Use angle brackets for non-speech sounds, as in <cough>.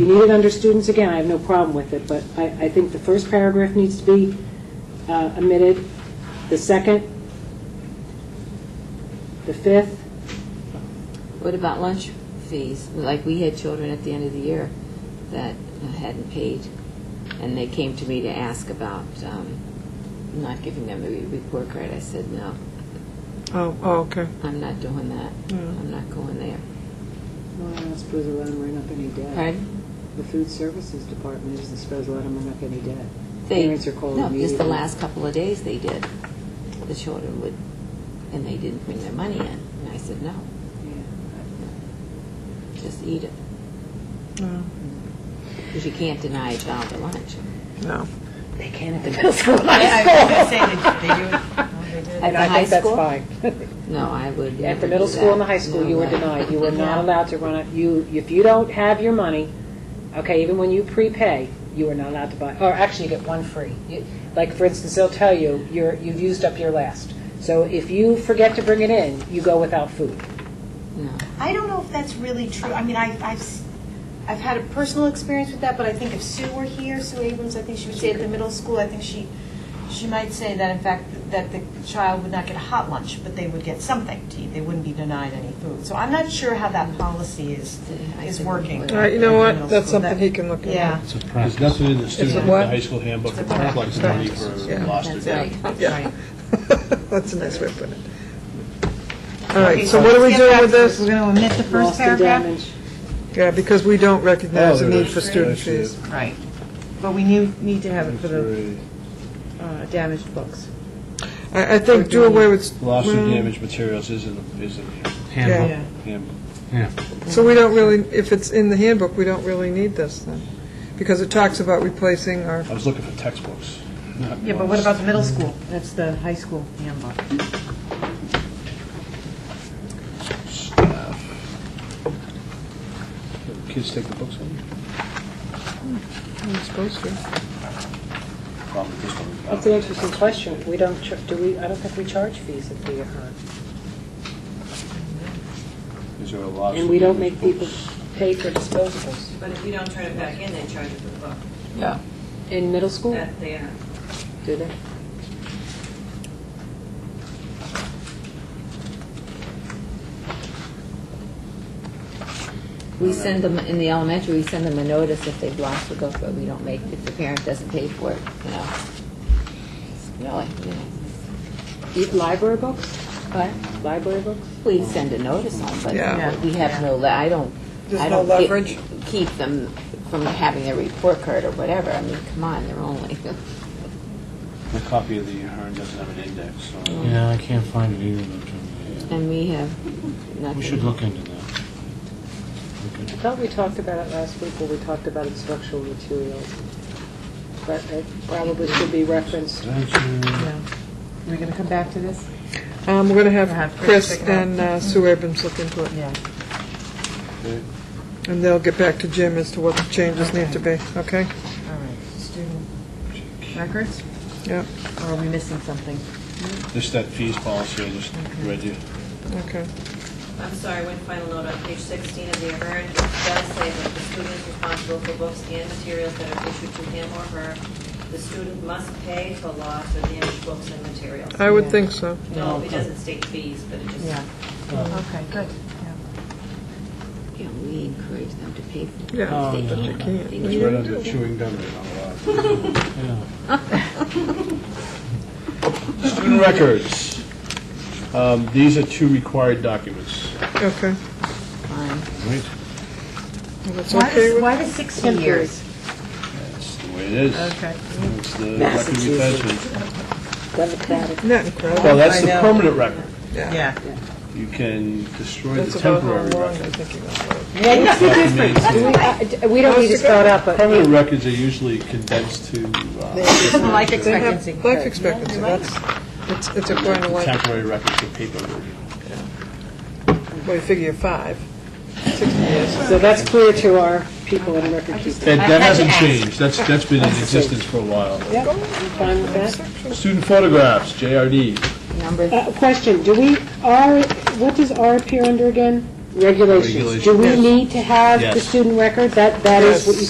You need it under students, again, I have no problem with it, but I, I think the first paragraph needs to be uh, omitted, the second, the fifth, What about lunch fees? Like, we had children at the end of the year that hadn't paid, and they came to me to ask about um, not giving them the re- report card. I said, no, Oh, oh, okay. I'm not doing that. Hmm. I'm not going there. Well, I don't suppose a lot of them are not any debt. Pardon? The food services department isn't supposed to let them run up any debt. They- Parents are called No, just the immediately. last couple of days they did. The children would, and they didn't bring their money in. And I said, no, just eat it, No, because you can't deny a child a lunch. no. They can at the middle school, high I school. was going to say, that they <laughs> do it. No, they At And the I high think that's school? fine. <laughs> No, I would At never the middle do school and the that. high school, No you were way. denied, you were not No. allowed to run up, you, if you don't have your money, okay, even when you prepay, you are not allowed to buy, or actually, you get one free. You- Like, for instance, they'll tell you, you're, you've used up your last. So if you forget to bring it in, you go without food. No. do. I don't know if that's really true. I mean, I- I've, s- I've had a personal experience with that, but I think if Sue were here, Sue Abrams, I think she would say at the middle school, I think she, she might say that in fact, that the child would not get a hot lunch, but they would get something to eat. They wouldn't be denied any food. So I'm not sure how that policy is, I is think- working. All right, Uh, you know what? That's something he can look at. Yeah. It's a practice. There's nothing in the student, the what? high school handbook, It's a that reflects money practice. for Yeah. lost or That's dead. right. Yeah. <laughs> That's a nice way of putting it. All right, Okay, so what are we let's get doing back with to- this? We're going to omit the first Lost and paragraph? damaged. Yeah, because we don't recognize the Oh, need there's- for student actually, fees. Right. But we knew, need to have it for the It's uh, damaged books. I, I think do away with. very- Lost or well, damaged materials is in, the- is in Yeah. handbook, Yeah. the handbook. yeah. So we don't really, if it's in the handbook, we don't really need this then, because it talks about replacing our, I was looking for textbooks. not Yeah, but what books. about the middle school? That's the high school handbook. Staff. Kids take the books home? I'm supposed to. Probably just don't. That's an interesting question. We don't, char- do we, I don't think we charge fees at the, uh, Is there a lost? and we or don't damaged make people books? pay for disposables. But if you don't turn it back in, they charge you for the book. Yeah. In middle Oh. school, That they are. do they? We send them, in the elementary, we send them a notice if they've lost the book, but we don't make, if the parent doesn't pay for it, you know. Really, you know. Eat Library books? But Library books? we send a notice on, Yeah. but we have no, le- I don't, There's I no don't get- leverage? keep them from having a report card or whatever. I mean, come on, they're only, <laughs> My copy of the Ahern doesn't have an index, so. Yeah, I can't find it either, um, though, Jim. and we have nothing. We should look into that. I thought we talked about it last week when we talked about instructional materials, but it probably should be referenced. Are we going to come back to this? Um, we're gonna We'll have have Chris Chris check it out. and uh, Sue Abrams look into it, Yeah. Okay. and they'll get back to Jim as to what the changes need to be, okay? All right. Student records? Yep, Or are we missing something? Just that fees policy, I just read you. okay. I'm sorry, one final note on page 16 of the Ahern, it does say that the student is responsible for books and materials that are issued to him or her. The student must pay for lost or damaged books and materials. I would think so. No, it doesn't state fees, but it just. Yeah. Okay, good. Yeah, we encourage them to pay for it. Yeah, They but Oh, they can't. can't. They It's right under chewing gum. Student records. Um, These are two required documents. Okay, Fine. Right. Well, that's Why okay does, with, why does 60 years? That's the way it is. Okay. It's the record retention. Democratic. not incredible. Well, that's the I know. permanent record. Yeah. You can destroy That's the about how temporary long I record. think you want to live. Documents- We I- we don't need to spell it out, but Permanent records are usually condensed to uh, Life They have expectancy. Life expectancy, that's, it's, it's according to life, temporary records of paper. well, you figure five, sixty years. so that's clear to our people in record keeping. That that hasn't changed. That's, <laughs> that's been in existence for a while. Yep, I'm fine with that. Student photographs, JRD. Number Uh, Question, do we, R, what does R appear under again? regulations, do we Regulations. need to have the Yes. student record? That, that is what you Yes.